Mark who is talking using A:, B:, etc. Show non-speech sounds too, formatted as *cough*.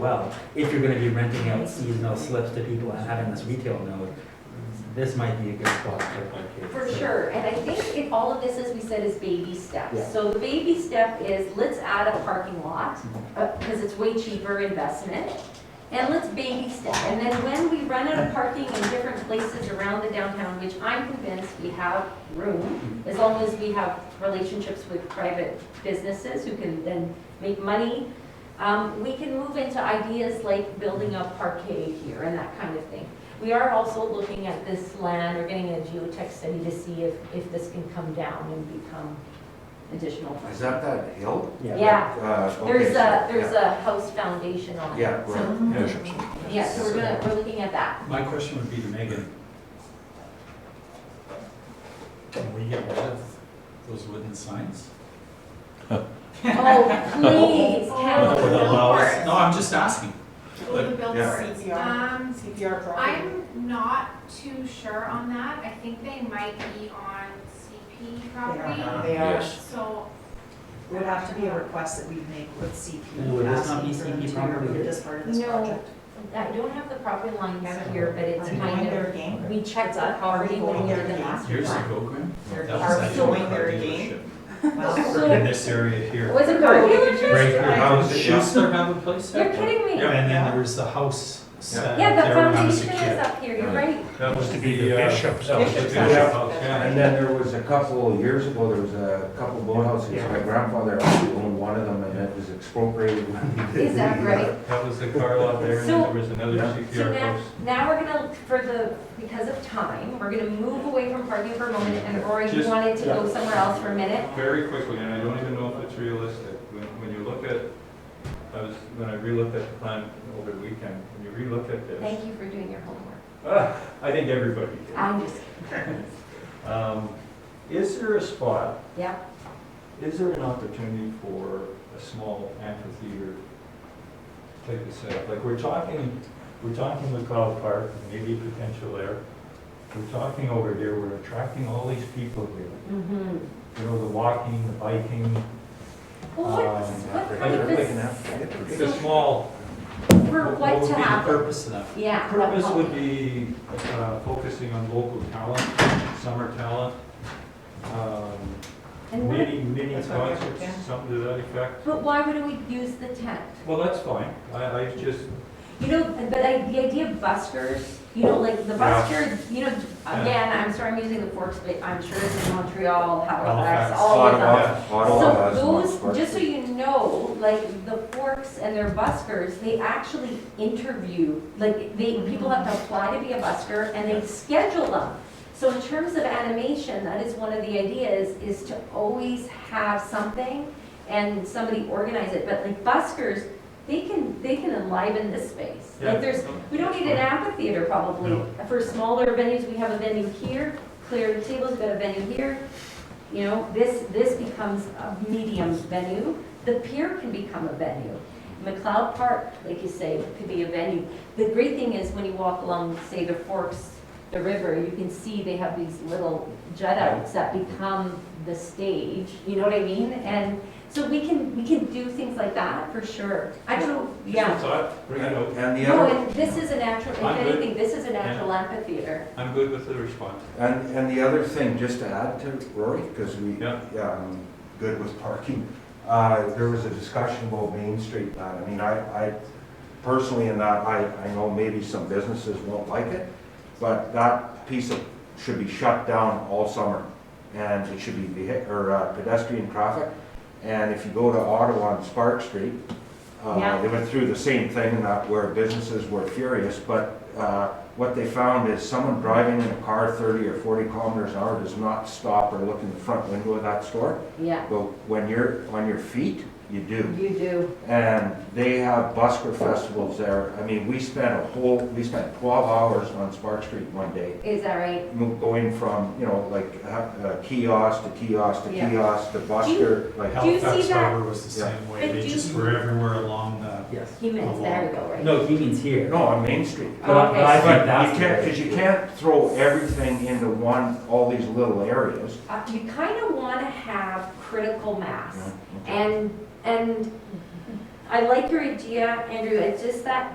A: well, if you're gonna be renting out seasonal slips to people and having this retail node, this might be a good spot for.
B: For sure, and I think it, all of this, as we said, is baby
A: Yeah.
B: steps. So the baby step is, let's add a parking lot, because it's way cheaper investment. And let's baby step, and then when we run out of parking in different places around the downtown, which I'm convinced we have room, as long as we have relationships with private businesses who can then make money, um, we can move into ideas like building a parquet here and that kind of thing. We are also looking at this land, or getting a geotech study to see if, if this can come down and become additional.
C: Is that that hill?
B: Yeah,
C: Uh, okay,
B: there's
C: so-
B: a, there's
C: yeah.
B: a house foundation on it.
C: Yeah, right.
B: So- Yeah, so we're gonna, we're looking at
D: *laughs*
B: that.
D: My question would be to Megan. Can we get rid of those wooden signs?
B: Oh, please,
D: That
B: can
D: would
B: we
D: allow us-
E: course.
D: No, I'm just asking.
E: Will you build
C: Yeah.
E: CPR,
F: Um,
E: CPR property?
F: I'm not too sure on that. I think they might be on CP property.
E: They are,
F: So,
E: it would have to be a request that we make with
A: And would
E: CP,
A: this not be
E: asking for them
A: CP
E: to
A: property?
E: remove this part of this
B: No.
E: project.
B: I don't have the property lines here, but it's
E: Are we
B: kind
E: going there
B: of,
E: again?
B: we checked the property when we did the master
D: Years
B: plan.
D: ago, Graham?
E: They're-
D: that was
E: are we
D: actually
E: going
D: a car
E: there
D: *laughs*
E: again?
B: *laughs*
E: Well,
D: dealership. In this area here.
B: Was it car
C: Right
B: dealership?
C: here, how is it? yeah.
D: Schuster have a place
B: You're
D: out there?
B: kidding me.
D: And then there was the house set
B: Yeah, the
D: there when I was a
B: foundation is
D: kid.
B: up here, you're right.
D: That was
G: to be the uh, bishop's.
D: That was the
C: Bishop's
D: bishop's
E: *laughs*
C: house.
D: house, yeah.
C: And then there was a couple, of years ago, there was a couple of boathouses. My grandfather actually owned one of them and it was expropriated. *laughs*
B: Is that right?
G: That was the car lot there, and
B: So-
G: there was another
C: Yeah.
B: So
G: CPR
B: now,
G: post.
B: now we're gonna, for the, because of time, we're gonna move away from parking for a moment, and Rory, you
G: Just-
B: wanted to go somewhere else for a minute?
G: Very quickly, and I don't even know if it's realistic, when, when you look at, I was, when I relooked at the plan over the weekend, when you relooked at this,
B: Thank you Ah. for doing your homework.
G: ah, *laughs* I think everybody did.
B: I'm just,
G: *laughs* Um, Is there a spot,
B: yeah,
G: is there an opportunity for a small amphitheater type of setup? Like, we're talking, we're talking McCall Park, maybe potential there. We're talking over here, we're attracting all these people here.
B: mm-hmm.
G: you know, the walking, the biking,
B: Well, what,
G: Um,
B: what kind
G: like-
B: of
G: like an
B: this?
G: it's a small.
B: For
G: what
B: what
G: would
B: to
G: be the
B: happen?
D: Purpose of that.
B: Yeah.
G: Purpose would be uh, focusing on local talent, summer talent, um,
B: And what-
G: mini, mini
E: That's what we have
G: concerts,
E: to do.
G: something to that effect.
B: But why wouldn't we use the tent?
G: Well, that's fine, I, I just,
B: You know, but I, the idea of buskers, you know, like the
G: Yeah.
B: busker, you know, again, I'm sorry I'm using the forks, but I'm sure it's in Montreal, Halifax,
G: Halifax,
B: all of them.
C: Ottawa, Ottawa has one.
B: So those, just so you know, like the forks and their buskers, they actually interview, like they, people have to apply to be a busker and they schedule them. So in terms of animation, that is one of the ideas, is to always have something and somebody organize it. But like buskers, they can, they can enliven this space.
G: yeah.
B: Like there's, we don't need an amphitheater probably.
G: No.
B: For smaller venues, we have a venue here, clear the tables, we've got a venue here. You know, this, this becomes a medium venue. The pier can become a venue. McLeod Park, like you say, could be a venue. The great thing is when you walk along, say, the forks, the river, you can see they have these little jut outs that become the stage, you know what I mean? And so we can, we can do things like that for sure. I don't know,
G: Just a
B: yeah.
G: thought, bring it out,
C: And the
B: No,
C: other,
B: and this is a natural, if
G: I'm good.
B: anything, this is a natural amphitheater.
G: I'm good with the response.
C: and, and the other thing, just to add to Rory, because we,
G: Yeah.
C: yeah, I'm good with parking. Uh, there was a discussion about Main Street, that, I mean, I, I personally in that, I, I know maybe some businesses won't like it, but that piece of, should be shut down all summer. And it should be vehi, or uh, pedestrian traffic. And if you go to Ottawa on Spark Street,
B: Yeah.
C: uh, they went through the same thing and that where businesses were furious, but, uh, what they found is someone driving in a car thirty or forty kilometers an hour does not stop or look in the front window of that store.
B: Yeah,
C: But when you're on your feet, you do.
B: you do.
C: And they have busker festivals there. I mean, we spent a whole, we spent 12 hours on Spark Street one day,
B: Is that right?
C: mo- going from, you know, like uh, kiosk to kiosk to
B: Yeah.
C: kiosk to busker, like,
B: Do you see
D: Halifax
B: that?
D: Harbor was the
C: Yeah.
D: same
B: But
D: way, they
B: do
D: just
B: you-
D: were everywhere along the,
A: Yes.
B: He means, there we go, right?
A: No, he means here.
B: Oh,
C: no, on Main Street.
A: But I- but I
C: But
A: think
C: you
A: that's.
C: can't, because you can't throw everything into one, all these little areas.
B: Uh, You kind of want to have critical mass.
C: Yeah, okay.
B: And, and I like your idea, Andrew, it's just that